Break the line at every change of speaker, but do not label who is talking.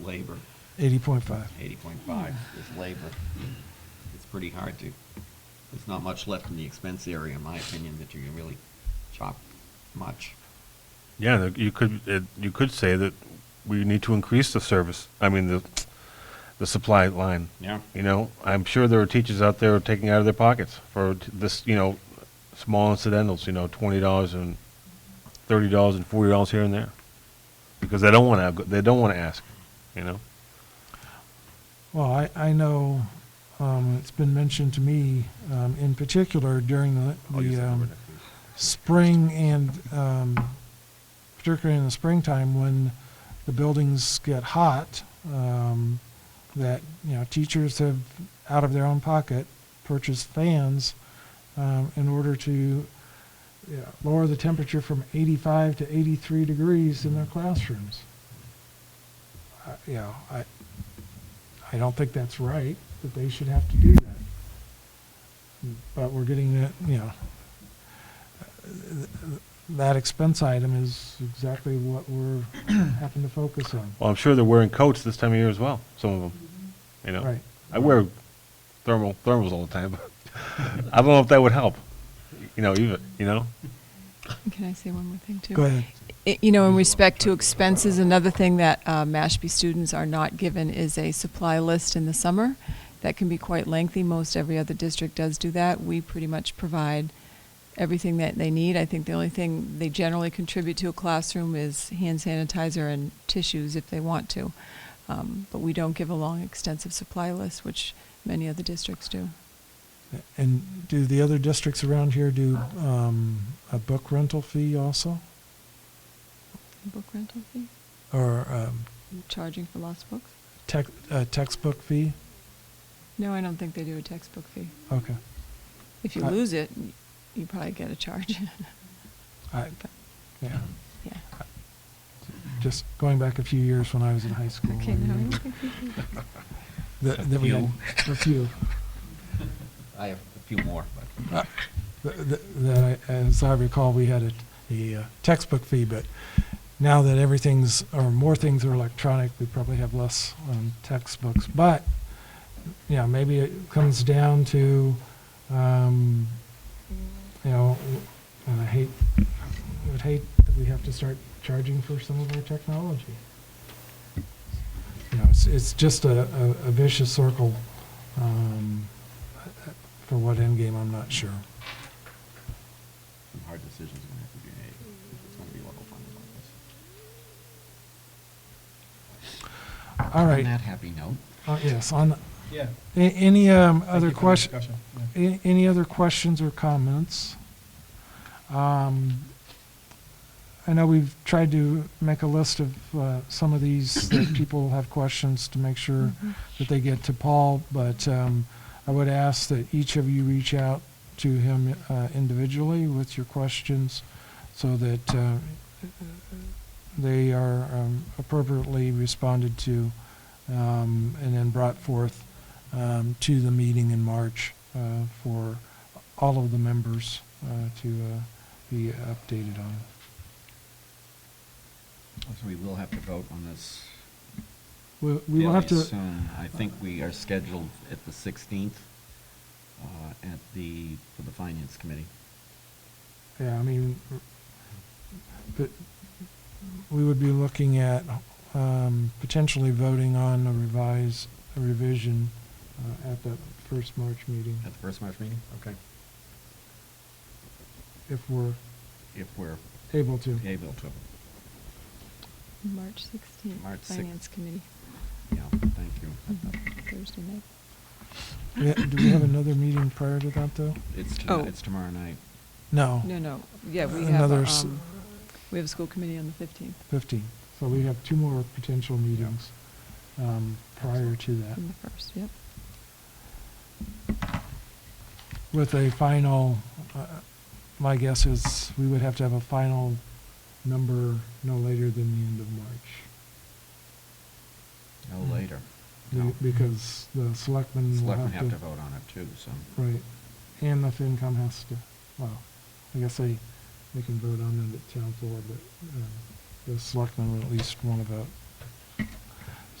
labor,
Eighty point five.
eighty point five
Hmm.
is labor. It's pretty hard to, there's not much left in the expense area, in my opinion, that you can really chop much.
Yeah, the- you could, it- you could say that we need to increase the service, I mean, the, the supply line.
Yeah.
You know, I'm sure there are teachers out there taking out of their pockets for t- this, you know, small incidentals, you know, twenty dollars and thirty dollars and forty dollars here and there. Because they don't want to, they don't want to ask, you know?
Well, I, I know, um, it's been mentioned to me, um, in particular during the,
I'll use
the,
that number
um,
next week.
spring and, um, particularly in the springtime when the buildings get hot, um, that, you know, teachers have, out of their own pocket, purchased fans, um, in order to, yeah, lower the temperature from eighty-five to eighty-three degrees in their classrooms. I- You know, I, I don't think that's right, that they should have to do that. But we're getting that, you know, that expense item is exactly what we're having to focus on.
Well, I'm sure they're wearing coats this time of year as well, some of them, you know?
Right.
I wear thermal thermals all the time. I don't know if that would help. You know, even you know.
Can I say one more thing, too?
Go ahead.
I- You know, in respect to expenses, another thing that uh, Mashpee students are not given is a supply list in the summer. That can be quite lengthy. Most every other district does do that. We pretty much provide everything that they need. I think the only thing they generally contribute to a classroom is hand sanitizer and tissues if they want to. Um, But we don't give a long, extensive supply list, which many other districts do.
And do the other districts around here do um, a book rental fee also?
Book rental fee?
Or um,
Charging for lost books?
tec- a textbook fee?
No, I don't think they do a textbook fee.
Okay.
If you
I-
lose it, y- you probably get a charge.
I,
But,
yeah.
yeah.
Just going back a few years when I was in high school.
Okay,
I
no, I
remember
don't think we do that.
That that we had a few.
I have a few more, but
Uh, th- th- that I, as I recall, we had a, the uh, textbook fee, but now that everything's, or more things are electronic, we probably have less um, textbooks. But, you know, maybe it comes down to, um, you know, and I hate, I would hate that we have to start charging for some of our technology. You know, it's, it's just a, a a vicious circle. Um, for what end game, I'm not sure.
some hard decisions are gonna have to be made. if It's gonna be level funded like this.
All
On
right,
that happy note.
uh, yes, on,
Yeah.
a- any um, other question,
questions?
a- any other questions or comments? Um, I know we've tried to make a list of uh, some of these, that people have questions to make sure that they get to Paul, but um, I would ask that each of you reach out to him uh, individually with your questions so that uh, they are um, appropriately responded to um, and then brought forth um, to the meeting in March uh, for all of the members uh, to uh, be updated on.
So we will have to vote on this.
We we will have
fairly
to,
soon. I think we are scheduled at the sixteenth, uh, at the, for the finance committee.
yeah, I mean, but we would be looking at um, potentially voting on a revise, a revision uh, at that first March meeting,
At the first March meeting? Okay.
if we're
If we're
able to.
able to,
March 16th,
March six-
Finance Committee,
yeah, thank you.
Thursday night.
We ha- Do we have another meeting prior to that, though?
It's, to-
Oh.
it's tomorrow night.
No.
No, no, yeah, we have,
Another
a,
s-
um, we have a school committee on the 15th
15. So we have two more potential meetings um, prior to that,
and the 1st, yep. Mm-hmm.
with a final, uh, my guess is we would have to have a final number no later than the end of March,
No later.
Be-
No.
because the selectmen will
Selectmen
Mm. have to.
have to vote on it too, so.
Right, and the FinCom has to, well, I guess uh, they, they can vote on it at town floor, but um, the selectmen will at least want to vote.